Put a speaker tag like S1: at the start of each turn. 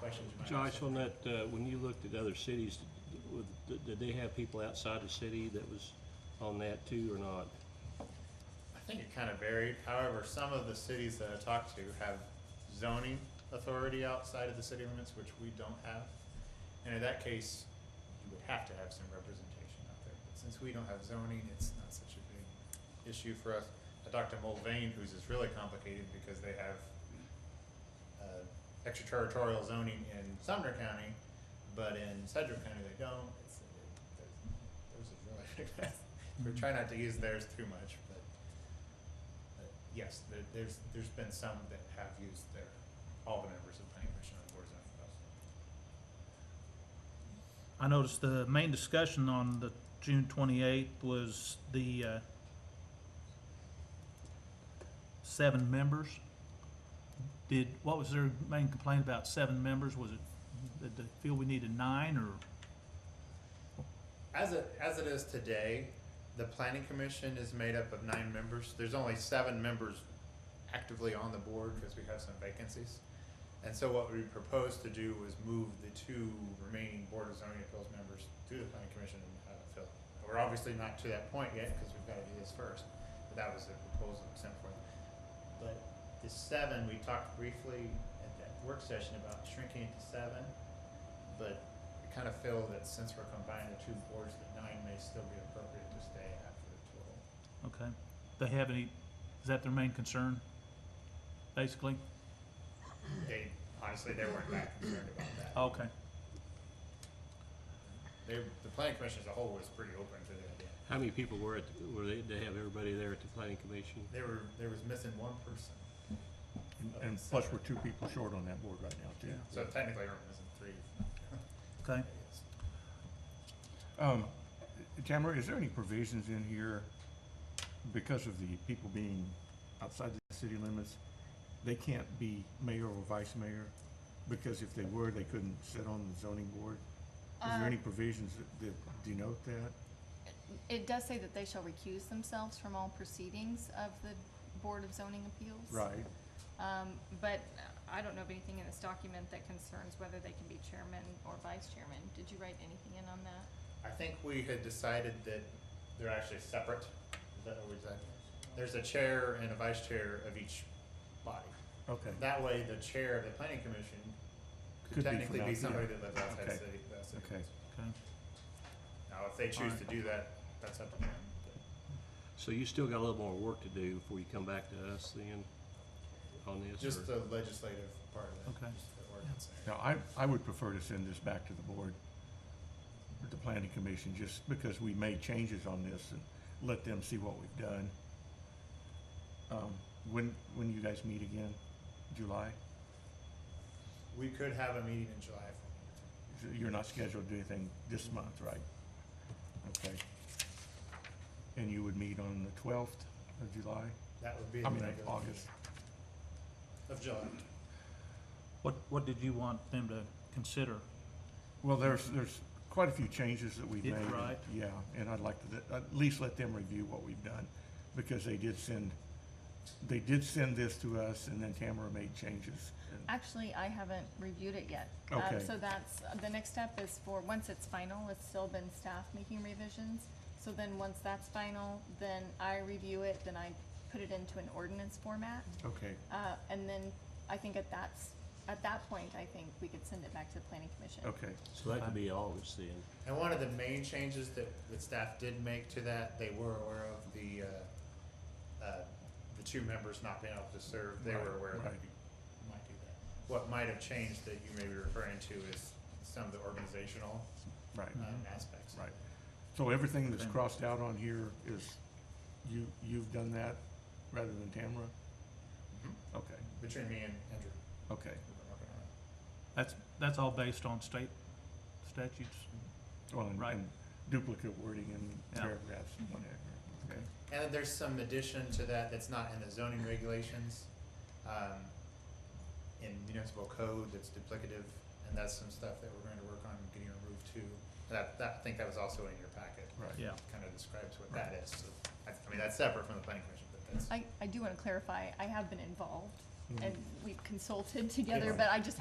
S1: questions you might have.
S2: Josh, on that, uh, when you looked at other cities, with- did- did they have people outside the city that was on that too or not?
S1: I think it kind of varied. However, some of the cities that I talked to have zoning authority outside of the city limits, which we don't have. And in that case, you would have to have some representation out there. But since we don't have zoning, it's not such a big issue for us. I talked to Mulvane, whose is really complicated because they have uh, extraterritorial zoning in Sumner County, but in Sedgwick County they don't. It's, it, there's, there's a really we try not to use theirs too much, but, but uh, yes, there, there's there's been some that have used their all the members of the planning commission on the board of zoning appeals.
S3: I noticed the main discussion on the June twenty-eighth was the, uh, seven members. Did, what was their main complaint about seven members? Was it, did they feel we needed nine or?
S1: As it as it is today, the planning commission is made up of nine members. There's only seven members actively on the board because we have some vacancies. And so what we proposed to do was move the two remaining board of zoning appeals members to the planning commission and have it filled. We're obviously not to that point yet because we've got to do this first, but that was the proposal we sent forth. But the seven, we talked briefly at that work session about shrinking it to seven, but I kind of feel that since we're combining the two boards, that nine may still be appropriate to stay after the total.
S3: Okay. They have any, is that their main concern, basically?
S1: They, honestly, they weren't that concerned about that.
S4: Oh.
S3: Okay,
S1: They, the planning commission as a whole was pretty open to the idea.
S2: How many people were at, the- were they, did they have everybody there at the planning commission?
S1: They were, there was missing one person,
S4: And- And plus, we're two people short on that board right now, too.
S3: Yeah.
S1: so technically we're missing three. I
S3: okay.
S1: guess.
S4: Um, Tamara, is there any provisions in here because of the people being outside the city limits? They can't be mayor or vice mayor, because if they were, they couldn't sit on the zoning board? Is there
S5: Uh,
S4: any provisions that- that denote that?
S5: It does say that they shall recuse themselves from all proceedings of the Board of Zoning Appeals.
S4: Right,
S5: Um, but I don't know of anything in this document that concerns whether they can be chairman or vice chairman. Did you write anything in on that?
S1: I think we had decided that they're actually separate. Is that what we said? There's a chair and a vice chair of each body.
S4: okay,
S1: That way, the chair of the planning commission
S4: Could be
S1: could
S4: from
S1: technically be
S4: out-
S1: somebody
S4: yeah.
S1: that lives outside the
S4: Okay.
S1: city. the city.
S4: okay.
S3: Okay.
S1: Now, if they choose to do that, that's up to them.
S2: So you still got a little more work to do before you come back to us then on this?
S1: Just
S2: or-
S1: the legislative part of it.
S3: Okay.
S1: just the ordinance there.
S4: Now, I, I would prefer to send this back to the board, the planning commission, just because we made changes on this and let them see what we've done. Um, when, when you guys meet again, July?
S1: We could have a meeting in July if we needed to.
S4: You're not scheduled to do anything this month, right? Okay. And you would meet on the twelfth of July,
S1: That would be.
S4: I
S1: the
S4: mean, of
S1: regular meeting
S4: August.
S1: Of July.
S3: What, what did you want them to consider?
S4: Well, there's, there's quite a few changes that we've made.
S3: Yeah, right.
S4: Yeah, and I'd like to, at least let them review what we've done, because they did send, they did send this to us, and then Tamara made changes. And-
S5: Actually, I haven't reviewed it yet. Um,
S4: Okay.
S5: So that's, the next step is for, once it's final, it's still been staff making revisions. So then, once that's final, then I review it, then I put it into an ordinance format.
S4: Okay,
S5: Uh, and then I think at that's, at that point, I think we could send it back to the planning commission.
S4: okay,
S2: So that could be August then.
S1: And one of the main changes that, that staff did make to that, they were aware of the, uh, uh, the two members not being able to serve, they were
S4: Right,
S1: aware that
S4: right.
S1: we might do that. What might have changed that you may be referring to is some of the organizational,
S4: right.
S1: um,
S3: Mhm.
S1: aspects.
S4: Mm-hmm. Right. So everything that's
S3: Okay.
S4: crossed out on here is, you, you've done that rather than Tamara?
S1: Mhm.
S4: Okay,
S1: Between me and Andrew.
S4: okay.
S1: we've been working on it.
S3: That's, that's all based on state statutes?
S4: Well, and-
S3: Right.
S4: and Duplicate wording and
S3: Yeah.
S4: paragraphs and whatever, okay.
S1: And there's some addition to that that's not in the zoning regulations, um, in municipal code that's duplicative, and that's some stuff that we're going to work on getting removed too. That, that, I think that was also in your packet.
S4: Right.
S3: Yeah.
S1: Kind of describes what that is, so, I, I mean, that's separate from the planning commission, but that's.
S5: I, I do want to clarify, I have been involved
S4: Mhm.
S5: and we've consulted together,
S4: Yeah.
S5: but I just